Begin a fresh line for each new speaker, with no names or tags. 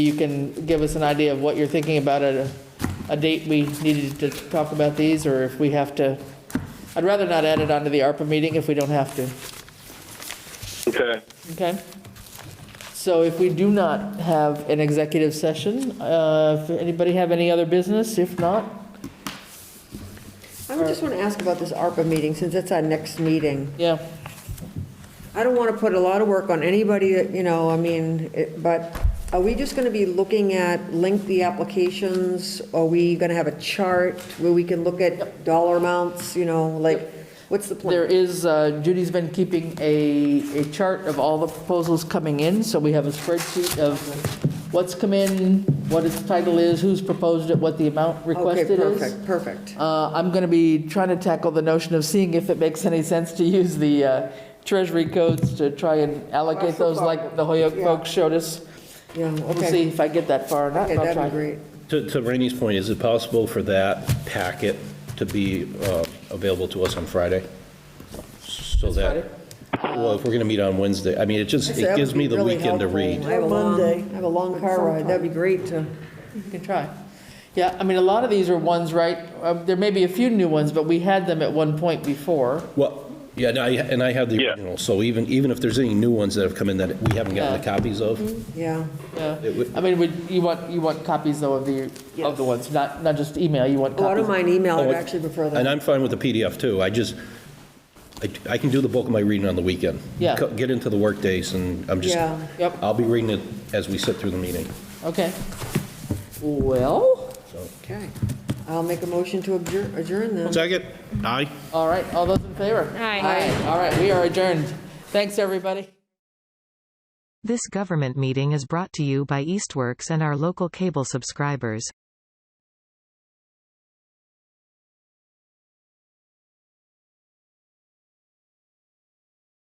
you can give us an idea of what you're thinking about at a, a date we needed to talk about these, or if we have to, I'd rather not add it onto the ARPA meeting if we don't have to,
Okay.
okay? So if we do not have an executive session, uh, if anybody have any other business, if not,
I would just want to ask about this ARPA meeting, since it's our next meeting.
yeah,
I don't want to put a lot of work on anybody, that, you know, I mean, it- but are we just going to be looking at lengthy applications? Are we going to have a chart where we can look at dollar amounts, you know, like, what's the
there
plan?
is, uh, Judy's been keeping a, a chart of all the proposals coming in, so we have a spreadsheet of what's come in, what its title is, who's proposed it, what the amount requested is.
Okay, perfect, perfect.
Uh, I'm going to be trying to tackle the notion of seeing if it makes any sense to use the uh, treasury codes to try and allocate
That's the
those like
problem.
the Hoyok
Yeah.
folks showed us.
Yeah,
We'll
okay.
see if I get that far or not.
Okay,
I'll
that'd
try.
be great.
To to Rainey's point, is it possible for that packet to be uh, available to us on Friday? So that, well, if we're going to meet on Wednesday, I mean, it just,
That
it
would
gives me
be
the
really
weekend to
helpful.
read.
I have a long, I
Monday.
have a long car ride, that'd be great to,
You can try. Yeah, I mean, a lot of these are ones, right? uh, There may be a few new ones, but we had them at one point before.
Well, yeah, and I, and I have the
Yeah.
original, so even, even if there's any new ones that have come in that we haven't gotten the
Yeah.
copies of,
Mm-hmm. yeah.
Yeah.
It would-
I mean, would- you want, you want copies though of the, of the
Yes.
ones, not, not just email, you want
Oh, I don't
copies.
mind email,
Oh,
I'd
it-
actually prefer
and
that.
I'm fine with the PDF too, I just, I I can do the bulk of my reading on the weekend.
Yeah.
Co- Get into the workdays, and I'm just,
Yeah.
Yep.
I'll be reading it as we sit through the meeting,
Okay. Well,
so.
Okay, I'll make a motion to adjourn adjourn then.
Second? Aye.
all right, all those in favor?
Aye.
Aye, all right, we are adjourned. Thanks, everybody.
This government meeting is brought to you by Eastworks and our local cable subscribers.